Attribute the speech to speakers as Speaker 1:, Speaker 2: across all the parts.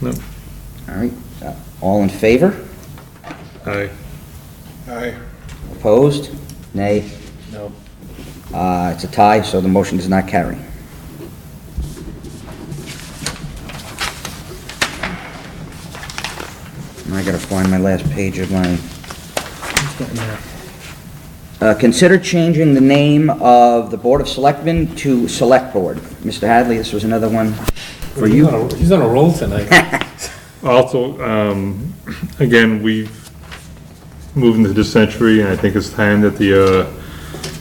Speaker 1: No.
Speaker 2: All right, Uh, all in favor?
Speaker 1: Aye.
Speaker 3: Aye.
Speaker 2: Opposed? Nay?
Speaker 3: No.
Speaker 2: Uh, It's a tie, so the motion does not carry. And I gotta find my last page of my... Uh, Consider changing the name of the Board of Selectmen to Select Board. Mr. Hadley, this was another one for
Speaker 4: He's
Speaker 2: you.
Speaker 4: on a- He's on a roll tonight.
Speaker 1: Also, um, again, we've moved into this century, and I think it's time that the, uh,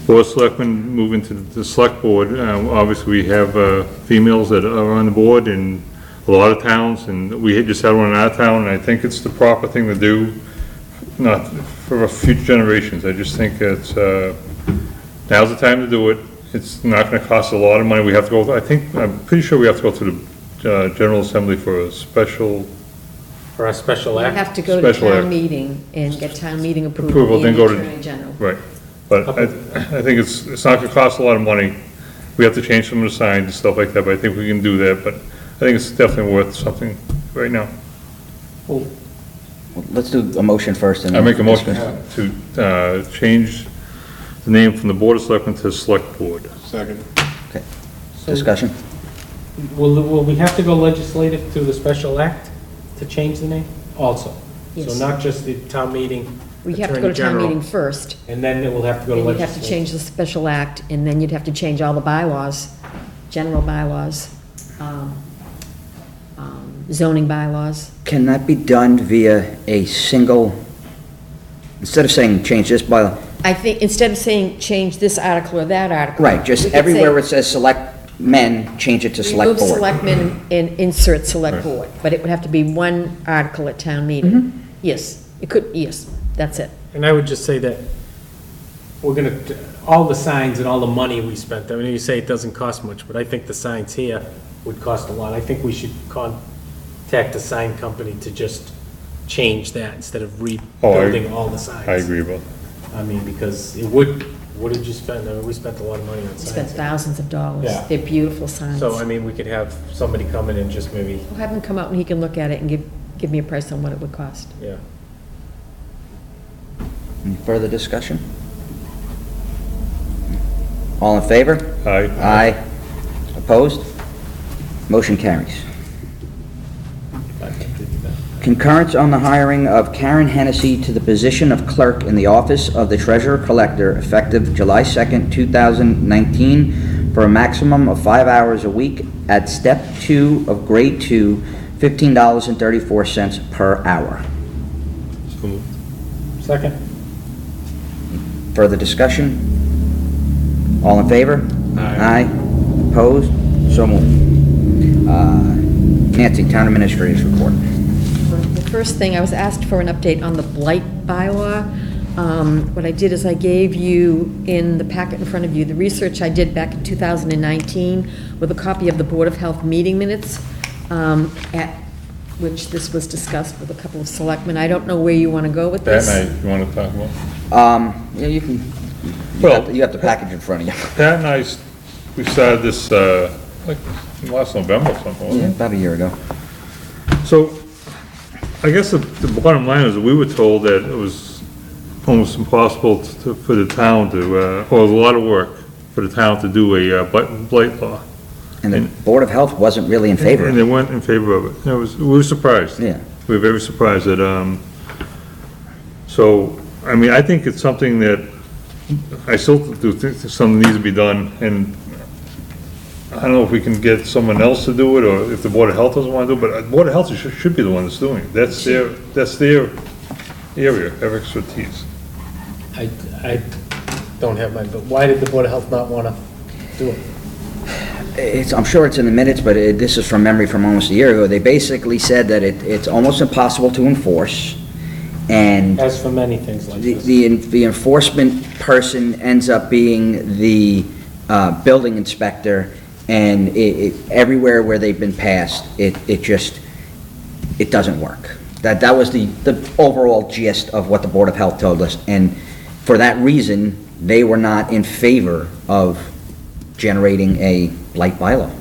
Speaker 1: board of selectmen move into the select board. Um, obviously, we have, uh, females that are on the board in a lot of towns, and we had just had one in our town, and I think it's the proper thing to do, not for future generations. I just think it's, uh, now's the time to do it. It's not gonna cost a lot of money. We have to go, I think, I'm pretty sure we have to go through the, uh, general assembly for a special
Speaker 4: For our special
Speaker 5: You
Speaker 4: act,
Speaker 5: have to go to
Speaker 1: Special act.
Speaker 5: town meeting and get town meeting
Speaker 1: Approval,
Speaker 5: approval
Speaker 1: then
Speaker 5: and the
Speaker 1: go to-
Speaker 5: attorney general.
Speaker 1: Right, but I, I think it's, it's not gonna cost a lot of money. We have to change some of the signs and stuff like that, but I think we can do that, but I think it's definitely worth something right now.
Speaker 2: Well, Let's do a motion first and
Speaker 1: I
Speaker 2: then...
Speaker 1: make a motion to, uh, change the name from the Board of Selectmen to Select Board.
Speaker 3: Second.
Speaker 2: Discussion.
Speaker 4: will, will we have to go legislative through the special act to change the name also? So
Speaker 5: Yes.
Speaker 4: not just the town meeting,
Speaker 5: We have to go
Speaker 4: attorney
Speaker 5: to town meeting
Speaker 4: general,
Speaker 5: first,
Speaker 4: and then it will have to go to
Speaker 5: and you'd have to
Speaker 4: legislative.
Speaker 5: change the special act, and then you'd have to change all the bylaws, general bylaws, um, um, zoning bylaws.
Speaker 2: Can that be done via a single, instead of saying change this bylaw,
Speaker 5: I think, instead of saying change this article or that article.
Speaker 2: right, just
Speaker 5: we could say
Speaker 2: everywhere where it says select men, change it to select
Speaker 5: Remove
Speaker 2: board?
Speaker 5: selectmen and insert select board, but it would have to be one article at town
Speaker 2: Mm-hmm.
Speaker 5: meeting. Yes, it could, yes, that's it.
Speaker 4: And I would just say that we're gonna, all the signs and all the money we spent, I mean, you say it doesn't cost much, but I think the signs here would cost a lot. I think we should contact a sign company to just change that instead of
Speaker 1: Oh, I-
Speaker 4: rebuilding all the signs.
Speaker 1: I agree about
Speaker 4: I mean, because it would, what did you spend? I mean, we spent a lot of money on
Speaker 5: We spent
Speaker 4: signs.
Speaker 5: thousands of dollars.
Speaker 4: Yeah.
Speaker 5: They're beautiful signs.
Speaker 4: So, I
Speaker 5: We'll
Speaker 4: mean, we could have somebody come in and just maybe,
Speaker 5: have him come out and he can look at it and give, give me a price on what it would cost.
Speaker 4: yeah.
Speaker 2: Any Further discussion? All in favor?
Speaker 1: that. Aye.
Speaker 2: Aye. Opposed? Motion carries.
Speaker 4: I think we do that.
Speaker 2: Concurrence on the hiring of Karen Hennessy to the position of clerk in the office of the treasurer collector effective July 2nd, 2019, for a maximum of five hours a week at step two of grade two, $15.34 per hour.
Speaker 1: So moved.
Speaker 4: Second?
Speaker 2: Further discussion? All in favor? Aye. Opposed? So moved. Uh, Nancy, Town Administrator's Report.
Speaker 5: The first thing, I was asked for an update on the blight bylaw. Um, What I did is I gave you, in the packet in front of you, the research I did back in 2019 with a copy of the Board of Health meeting minutes, um, at which this was discussed with a couple of selectmen. I don't know where you want to go with this.
Speaker 1: That night, you wanna talk about?
Speaker 2: Um, yeah, you can, you
Speaker 1: Well-
Speaker 2: have- you have the package in front of you.
Speaker 1: Pat and I, s- we started this, uh, like, last November or something, wasn't it?
Speaker 2: Yeah, About a year ago.
Speaker 1: So, I guess the, the bottom line is, we were told that it was almost impossible to, for the town to, uh, or a lot of work for the town to do a uh, blight, blight law.
Speaker 2: And the
Speaker 1: And-
Speaker 2: Board of Health wasn't really in favor.
Speaker 1: And they weren't in favor of it. And it was, we were surprised.
Speaker 2: Yeah.
Speaker 1: We were very surprised that, um, so, I mean, I think it's something that, I still do think that something needs to be done, and I don't know if we can get someone else to do it, or if the Board of Health doesn't want to do it, but the Board of Health should, should be the one that's doing it. That's their, that's their area of expertise.
Speaker 4: I, I don't have mine, but why did the Board of Health not want to do it?
Speaker 2: It's, I'm sure it's in the minutes, but it- this is from memory from almost a year ago. They basically said that it, it's almost impossible to enforce, and
Speaker 4: As for many things like
Speaker 2: the,
Speaker 4: this.
Speaker 2: the en- the enforcement person ends up being the uh, building inspector, and it, it, everywhere where they've been passed, it, it just, it doesn't work. That, that was the, the overall gist of what the Board of Health told us, and for that reason, they were not in favor of generating a blight bylaw.